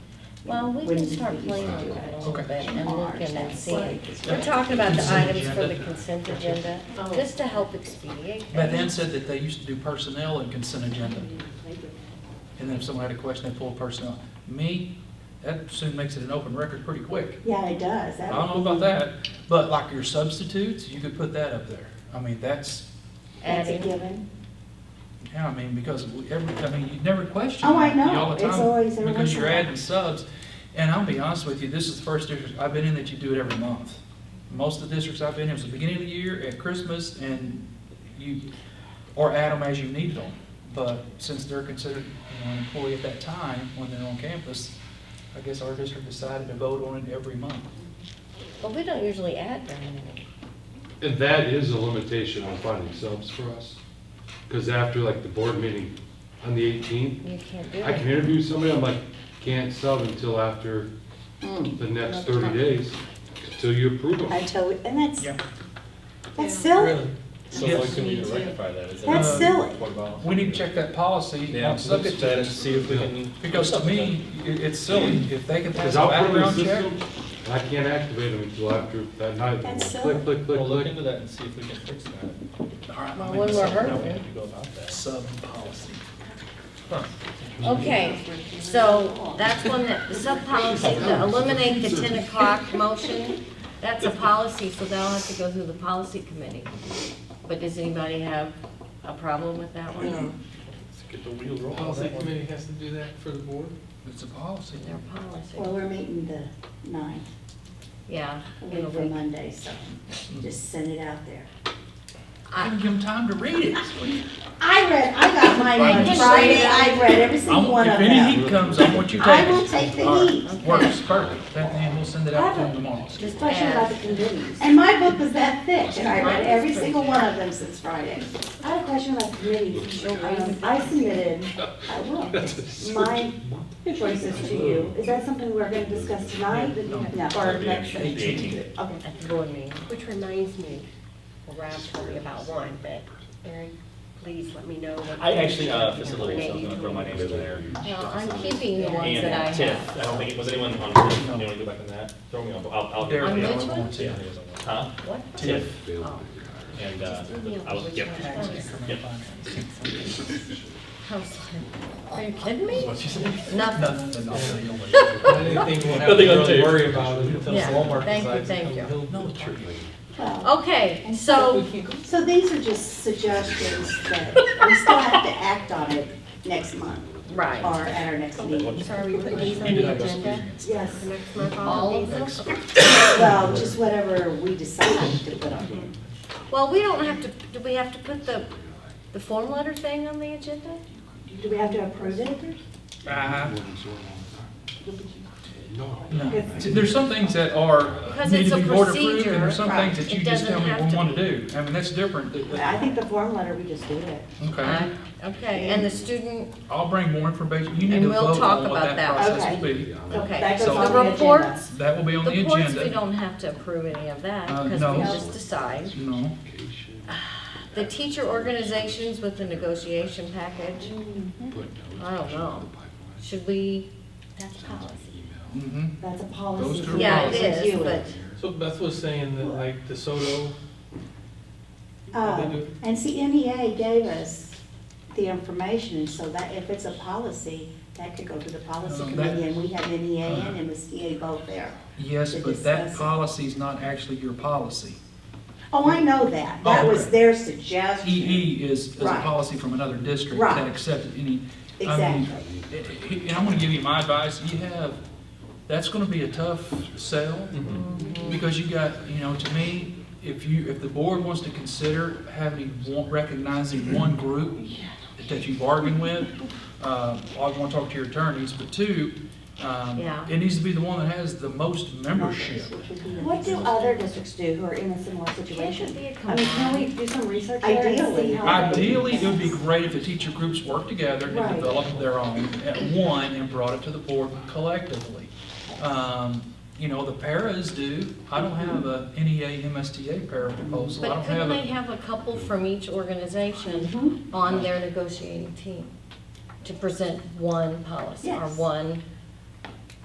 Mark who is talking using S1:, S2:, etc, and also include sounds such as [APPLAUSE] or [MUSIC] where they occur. S1: Well, we can start playing with it a little
S2: Okay.
S1: bit and looking and seeing.
S2: Yeah.
S1: We're talking about the
S2: Consent
S1: items for
S2: agenda.
S1: the consent agenda, Oh. just to help expedite.
S2: Beth Ann said that they used to do personnel and consent agenda. And then if someone had a question, they pulled personnel. Me, that soon makes it an open record pretty quick.
S3: Yeah, it does.
S2: I
S3: That
S2: don't
S3: would
S2: know about
S3: be-
S2: that, but like your substitutes, you could put that up there. I mean, that's,
S3: That's a
S1: Adding.
S3: given.
S2: yeah, I mean, because we- every, I mean, you never question.
S3: Oh, I
S2: that
S3: know.
S2: all the
S3: It's
S2: time
S3: always every
S2: Because
S3: once
S2: you're
S3: in a while.
S2: adding subs, and I'll be honest with you, this is the first district I've been in that you do it every month. Most of the districts I've been in, it was the beginning of the year, at Christmas, and you, or add them as you need them. But since they're considered, you know, an employee at that time, when they're on campus, I guess our district decided to vote on it every month.
S1: But we don't usually add very many.
S4: And that is a limitation on finding subs for us, because after like the board meeting on the eighteenth,
S1: You can't do
S4: I can
S1: it.
S4: interview somebody, I'm like, can't sub until after
S3: Mm.
S4: the next thirty days, until you approve them.
S3: Until, we- and that's,
S2: Yeah.
S3: that's
S5: Yeah.
S3: silly.
S6: So
S2: Yes.
S6: what can we do to rectify that? Is
S3: That's
S2: Uh,
S6: that-
S3: silly.
S6: What about-
S2: We need to check that policy
S6: Yeah,
S2: on
S6: let's
S2: subject
S6: do that and
S2: to,
S6: see if we can.
S2: because to me, it- it's silly, if they can pass
S4: Because
S2: a
S4: I'll put them in
S2: background
S4: the
S2: check.
S4: system, and I can't activate them until after that night,
S3: That's
S4: click, click, click,
S6: We'll look
S4: click.
S6: into that and see if we can fix that.
S2: All right,
S1: Well,
S2: I mean,
S1: when we're
S2: sub-
S1: hurt.
S6: How we have to go about that.
S2: Sub policy.
S1: Okay, so that's one that, the sub-policy, the eliminate the ten o'clock motion, that's a policy, so that'll have to go through the policy committee. But does anybody have a problem with that one?
S6: Get the wheel rolling. on
S5: Policy
S6: that one.
S5: committee has to do that for the board?
S2: It's a policy.
S1: Their policy,
S3: Well, we're meeting the ninth,
S1: yeah.
S3: a
S1: in a
S3: week from
S1: week.
S3: Monday, so just send it out there.
S1: I-
S2: Give them time to read it.
S3: I read, I got mine
S1: I
S3: on
S1: just
S3: Friday.
S1: read-
S3: I read every
S2: I'm-
S3: single one
S2: If
S3: of
S2: any
S3: them.
S2: heat comes, I want you to take
S3: I will
S2: it.
S3: take the
S2: All right.
S3: heat.
S2: Works, perfect. That, and we'll send it out to them tomorrow.
S1: Just
S3: Question about
S1: add,
S3: the committees. And my book was that thick, and I read
S1: Mine
S3: every
S1: is pretty
S3: single one of them since Friday. I had a question about committees. Um, I [LAUGHS] submitted, I will, my choices to you. Is that something we're gonna discuss tonight? No. Or next?
S2: Eighteen.
S3: Okay.
S1: at the board meeting.
S7: Which reminds me, well, Ralph's talking about one, but Erin, please let me know what.
S6: I actually uh, facilitated, so I'm
S7: Maybe
S6: gonna throw my name in there.
S1: Well, I'm keeping the ones that I
S6: And
S1: have.
S6: Tiff, I don't think, it was anyone on, Tiff? anyone go back on that? Throw me on, I'll, I'll.
S2: They're
S1: On
S2: the
S1: which
S2: only
S1: one?
S2: ones,
S6: Yeah,
S2: yeah.
S6: I think it was on that. Huh?
S1: What?
S6: Tiff,
S1: Oh,
S6: and, uh,
S1: just leave me
S6: I was,
S1: alone.
S6: yep.
S1: Which one?
S6: Yep.
S1: I was like, Are you kidding me? [LAUGHS] Nothing.
S2: Nothing. I'll say
S5: Anything
S2: no.
S5: we'll have to
S6: Nothing on
S5: really
S6: tape.
S5: worry about is until
S1: Yeah.
S5: Walmart
S1: Thank you,
S5: decides to
S1: thank
S5: come
S1: you.
S5: build.
S2: No, it's true.
S3: Well,
S1: Okay, so,
S3: So these are just suggestions that we still have to act on it next month
S1: right,
S3: or at our next meeting.
S7: So are we putting these on the agenda
S3: Yes,
S7: for next month?
S1: all of them?
S3: well, just whatever we decide to put on.
S1: Well, we don't have to, do we have to put the, the form letter thing on the agenda?
S3: Do we have to approve it?
S5: Uh-huh.
S2: Uh,
S4: No.
S2: no. There's some things that are, uh,
S1: Because
S2: need
S1: it's
S2: to
S1: a
S2: be board approved,
S1: procedure,
S2: and there's some
S1: right.
S2: things that
S1: It
S2: you just
S1: doesn't
S2: tell me
S1: have
S2: we
S1: to
S2: want to do. I mean, that's different.
S3: I think the form letter, we just do it.
S2: Okay.
S1: Uh, Okay, and the student,
S2: I'll bring more information. You need
S1: And
S2: to
S1: we'll
S2: vote
S1: talk
S2: on
S1: about
S2: what that
S1: that.
S2: process will be.
S1: okay,
S3: That goes
S1: so
S3: on
S1: the
S3: the agenda.
S1: reports,
S2: That will be on
S1: the
S2: the
S1: reports, we
S2: agenda.
S1: don't have to approve any of that,
S2: Uh,
S1: because
S2: no.
S1: we just decide.
S2: No.
S1: The teacher organizations with the negotiation package, I don't know. Should we? That's policy.
S2: Mm-hmm.
S3: That's a
S2: Those
S3: policy.
S2: two are
S1: Yeah, it
S3: It's
S1: is,
S3: you.
S1: but,
S5: So Beth was saying that like DeSoto,
S3: Uh, And see, NEA gave us the information, so that if it's a policy, that could go to the policy
S2: No, Um, that- Uh-huh.
S3: committee, and we have NEA and MSTA both there.
S2: Yes,
S3: To
S2: but that
S3: discuss it.
S2: policy is not actually your policy.
S3: Oh, I know that. That was their suggestion.
S2: E EE is, is a
S3: Right.
S2: policy from another district
S3: Right.
S2: that accepted any. I mean,
S3: Exactly.
S2: And I'm gonna give you my advice, you have, that's gonna be a tough sell, because you got, you know, to me, if you, if the board wants to consider having, one- recognizing one group that you bargain with, uh, I wanna talk to your attorneys, but two, um,
S1: Yeah.
S2: it needs to be the one that has the most membership.
S8: What do other districts do who are in a similar situation?
S1: be a
S8: I mean, can we do some research there and
S3: Ideally.
S8: see how? they-
S2: Ideally, it would be great if the teacher groups worked together and
S8: Right.
S2: developed their own at one and brought it to the board collectively. Um, You know, the paras do, I don't have a NEA MSTA para proposal, I
S1: but
S2: don't
S1: couldn't
S2: have
S1: they
S2: a,
S1: have a couple from each
S3: Mm-hmm.
S8: Mm-hmm.
S1: organization on their negotiating team to present one policy or
S3: Yes.
S1: one